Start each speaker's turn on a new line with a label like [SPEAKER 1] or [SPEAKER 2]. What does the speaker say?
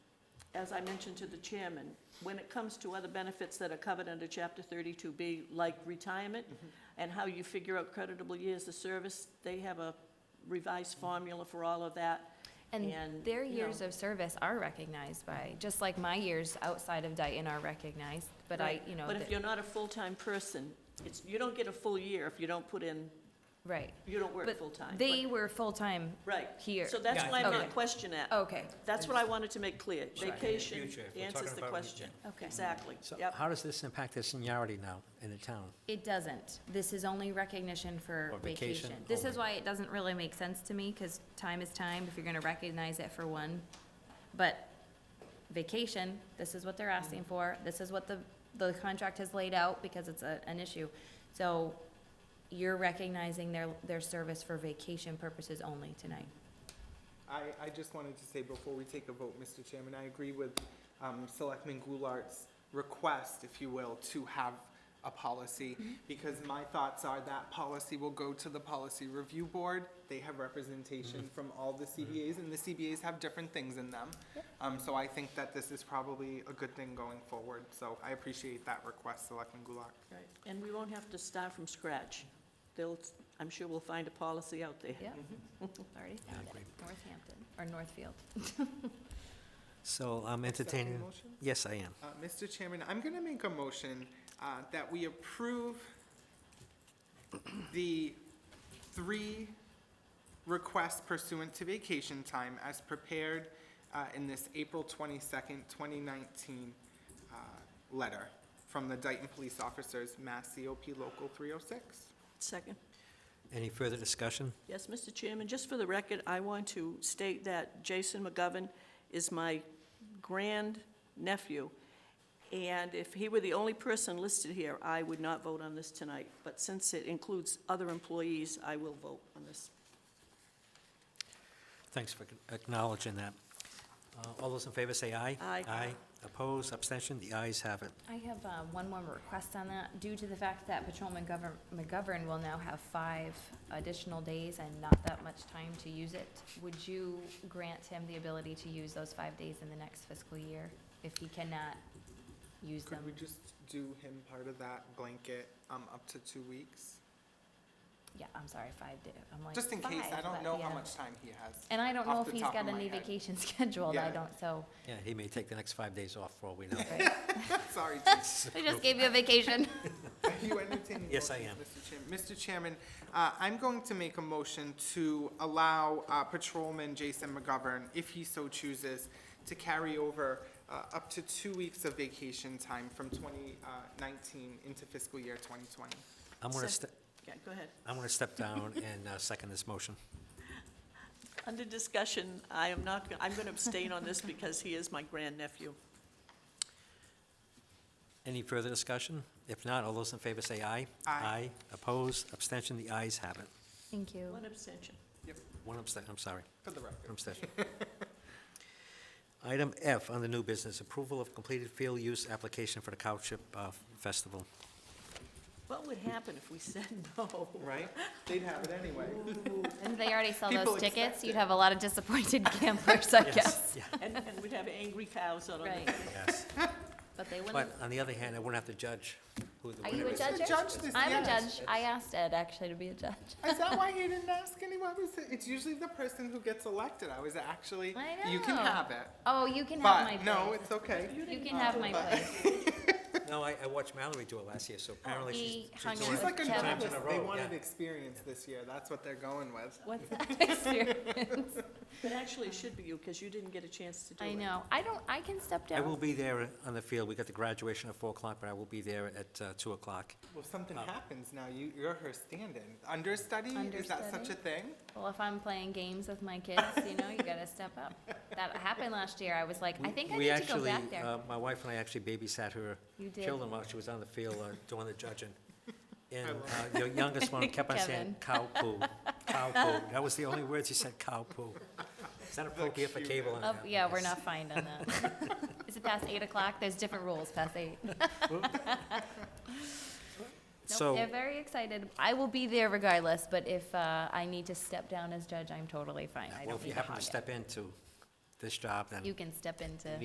[SPEAKER 1] as I mentioned to the chairman, when it comes to other benefits that are covered under Chapter 32B, like retirement,
[SPEAKER 2] Mm-hmm.
[SPEAKER 1] and how you figure out creditable years of service, they have a revised formula for all of that.
[SPEAKER 2] And
[SPEAKER 1] And,
[SPEAKER 2] their
[SPEAKER 1] you
[SPEAKER 2] years
[SPEAKER 1] know.
[SPEAKER 2] of service are recognized by, just like my years outside of Dayton are recognized, but I,
[SPEAKER 1] Right.
[SPEAKER 2] you know,
[SPEAKER 1] But if
[SPEAKER 2] the-
[SPEAKER 1] you're not a full-time person, it's, you don't get a full year if you don't put in,
[SPEAKER 2] right.
[SPEAKER 1] you don't work
[SPEAKER 2] But
[SPEAKER 1] full-time.
[SPEAKER 2] They were full-time
[SPEAKER 1] Right.
[SPEAKER 2] here.
[SPEAKER 1] So that's
[SPEAKER 3] Yeah, I
[SPEAKER 1] why I'm
[SPEAKER 2] think-
[SPEAKER 1] not
[SPEAKER 2] Okay.
[SPEAKER 1] questioning that.
[SPEAKER 2] Okay,
[SPEAKER 1] That's what I wanted to make clear.
[SPEAKER 3] Sure.
[SPEAKER 1] Vacation
[SPEAKER 3] Future, if we're
[SPEAKER 1] answers
[SPEAKER 3] talking
[SPEAKER 1] the
[SPEAKER 3] about-
[SPEAKER 1] question.
[SPEAKER 2] Okay.
[SPEAKER 1] Exactly,
[SPEAKER 4] So
[SPEAKER 1] yep.
[SPEAKER 4] how does this impact the seniority now in the town?
[SPEAKER 2] it doesn't. This is only recognition for
[SPEAKER 4] Or vacation Oh
[SPEAKER 2] vacation. This is
[SPEAKER 4] only.
[SPEAKER 2] why it doesn't really make sense to me, because time is time, if you're gonna recognize it for one. But vacation, this is what
[SPEAKER 4] Mm.
[SPEAKER 2] they're asking for, this is what the, the contract has laid out, because it's a, an issue. So you're recognizing their, their service for vacation purposes only tonight.
[SPEAKER 5] I, I just wanted to say before we take a vote, Mr. Chairman, I agree with um, Selectman Goulart's request, if you will, to have a policy, because my thoughts are that policy will go to the Policy Review Board. They have representation from all the CBAs, and the CBAs have different things in them. Um, So I think that this is probably a good thing going forward, so I appreciate that request, Selectman Goulart.
[SPEAKER 1] Right, and we won't have to start from scratch. They'll, I'm sure we'll find a policy out there.
[SPEAKER 2] Yep, already found it,
[SPEAKER 4] agree.
[SPEAKER 2] Northampton, or Northfield.
[SPEAKER 4] So I'm
[SPEAKER 5] Is
[SPEAKER 4] entertaining,
[SPEAKER 5] that a motion?
[SPEAKER 4] yes, I am.
[SPEAKER 5] Uh, Mr. Chairman, I'm going to make a motion uh, that we approve the three requests pursuant to vacation time as prepared uh, in this April 22nd, 2019 uh, letter from the Dayton Police Officers, Mass COP Local 306.
[SPEAKER 1] Second.
[SPEAKER 4] Any further discussion?
[SPEAKER 1] Yes, Mr. Chairman, just for the record, I want to state that Jason McGovern is my grandnephew, and if he were the only person listed here, I would not vote on this tonight. But since it includes other employees, I will vote on this.
[SPEAKER 4] Thanks for acknowledging that. Uh, All those in favor say aye.
[SPEAKER 1] Aye.
[SPEAKER 4] Aye. Opposed, abstention, the ayes have it.
[SPEAKER 2] I have uh, one more request on that, due to the fact that Patrolman Govern- McGovern will now have five additional days and not that much time to use it, would you grant him the ability to use those five days in the next fiscal year if he cannot use them?
[SPEAKER 5] Could we just do him part of that blanket um, up to two weeks?
[SPEAKER 2] Yeah, I'm sorry, five days, I'm like,
[SPEAKER 5] Just in case, I
[SPEAKER 2] five,
[SPEAKER 5] don't
[SPEAKER 2] but
[SPEAKER 5] know
[SPEAKER 2] yeah.
[SPEAKER 5] how much time he has.
[SPEAKER 2] And I don't know
[SPEAKER 5] off
[SPEAKER 2] if
[SPEAKER 5] the
[SPEAKER 2] he's
[SPEAKER 5] top of
[SPEAKER 2] got
[SPEAKER 5] my
[SPEAKER 2] any
[SPEAKER 5] head.
[SPEAKER 2] vacation scheduled, I
[SPEAKER 5] Yeah.
[SPEAKER 2] don't, so,
[SPEAKER 4] Yeah, he may take the next five days off for all we know.
[SPEAKER 2] right.
[SPEAKER 5] Sorry, Jason.
[SPEAKER 2] I just gave you a vacation.
[SPEAKER 5] Are you entertaining
[SPEAKER 4] Yes, I
[SPEAKER 5] motions, Mr. Chairman? Mr. Chairman, uh, I'm going to make a motion to allow uh, Patrolman Jason McGovern, if he so chooses, to carry over uh, up to two weeks of vacation time from 2019 into fiscal year 2020.
[SPEAKER 4] I'm going to,
[SPEAKER 1] Sec-
[SPEAKER 4] step.
[SPEAKER 1] Yeah, go ahead.
[SPEAKER 4] I'm going to step down and uh, second this motion.
[SPEAKER 1] Under discussion, I am not, go- I'm going to abstain on this because he is my grandnephew.
[SPEAKER 4] Any further discussion? If not, all those in favor say aye.
[SPEAKER 5] Aye.
[SPEAKER 4] Opposed, abstention, the ayes have it.
[SPEAKER 2] Thank you.
[SPEAKER 1] One abstention.
[SPEAKER 4] One abstention, I'm sorry.
[SPEAKER 5] For the record.
[SPEAKER 4] I'm session. Item F, under new business, approval of completed field use application for the Cowship uh, Festival.
[SPEAKER 1] What would happen if we said no?
[SPEAKER 5] Right? They'd have it anyway.
[SPEAKER 2] And they already sell
[SPEAKER 5] People
[SPEAKER 2] those
[SPEAKER 5] expect
[SPEAKER 2] tickets, you'd
[SPEAKER 5] it.
[SPEAKER 2] have a lot of disappointed campers, I guess.
[SPEAKER 4] Yeah,
[SPEAKER 1] And, and we'd have angry cows out on the
[SPEAKER 2] Right,
[SPEAKER 4] yes.
[SPEAKER 2] but they wouldn't.
[SPEAKER 4] But on the other hand, I wouldn't have to judge who the
[SPEAKER 2] Are you
[SPEAKER 4] winner
[SPEAKER 2] a
[SPEAKER 4] is.
[SPEAKER 2] judge?
[SPEAKER 5] The judge this-
[SPEAKER 2] I'm a
[SPEAKER 5] yes.
[SPEAKER 2] judge. I asked Ed actually to be a judge.
[SPEAKER 5] Is that why you didn't ask anyone? Was it- It's usually the person who gets elected. I was actually,
[SPEAKER 2] I
[SPEAKER 5] you can
[SPEAKER 2] know.
[SPEAKER 5] have it.
[SPEAKER 2] Oh, you can have my
[SPEAKER 5] But,
[SPEAKER 2] place.
[SPEAKER 5] no, it's okay.
[SPEAKER 2] You can have my place.
[SPEAKER 4] No, I I watched Mallory do it last year, so apparently she's...
[SPEAKER 2] He
[SPEAKER 4] she's
[SPEAKER 2] hung
[SPEAKER 4] doing
[SPEAKER 2] out
[SPEAKER 5] She's
[SPEAKER 4] it
[SPEAKER 2] with
[SPEAKER 5] like a
[SPEAKER 4] two
[SPEAKER 2] Kevin.
[SPEAKER 4] times in a
[SPEAKER 5] novice. They
[SPEAKER 4] row,
[SPEAKER 5] wanted
[SPEAKER 4] yeah.
[SPEAKER 5] experience this year. That's what they're going with.
[SPEAKER 2] What's that experience?
[SPEAKER 1] But actually, it should be you, because you didn't get a chance to do it.
[SPEAKER 2] I know. I don't, I can step down.
[SPEAKER 4] I will be there on the field. We got the graduation at 4 o'clock, but I will be there at uh, 2 o'clock.
[SPEAKER 5] Well, if something happens now, you, you're her stand-in. Understudy, is that such
[SPEAKER 2] Understudy?
[SPEAKER 5] a thing?
[SPEAKER 2] Well, if I'm playing games with my kids, you know, you gotta step up. That happened last year. I was like, I
[SPEAKER 4] We-
[SPEAKER 2] think I
[SPEAKER 4] we
[SPEAKER 2] need to go
[SPEAKER 4] actually,
[SPEAKER 2] back there.
[SPEAKER 4] uh, My wife and I actually babysat her
[SPEAKER 2] You did.
[SPEAKER 4] children while she was on the field uh, doing the judging. And uh, your youngest one kept on saying, cow poo, cow poo. That was the only words he said, cow poo. Is that appropriate for cable? on
[SPEAKER 2] Oh,
[SPEAKER 4] that?
[SPEAKER 2] yeah, we're not fined on that. Is it past eight o'clock? There's different rules past eight. Nope,
[SPEAKER 4] So,
[SPEAKER 2] they're very excited. I will be there regardless, but if, uh, I need to step down as judge, I'm totally fine. I don't
[SPEAKER 4] well, if you
[SPEAKER 2] need to
[SPEAKER 4] happen
[SPEAKER 2] hog
[SPEAKER 4] to
[SPEAKER 2] it.
[SPEAKER 4] step into this job, then.
[SPEAKER 2] You can step into.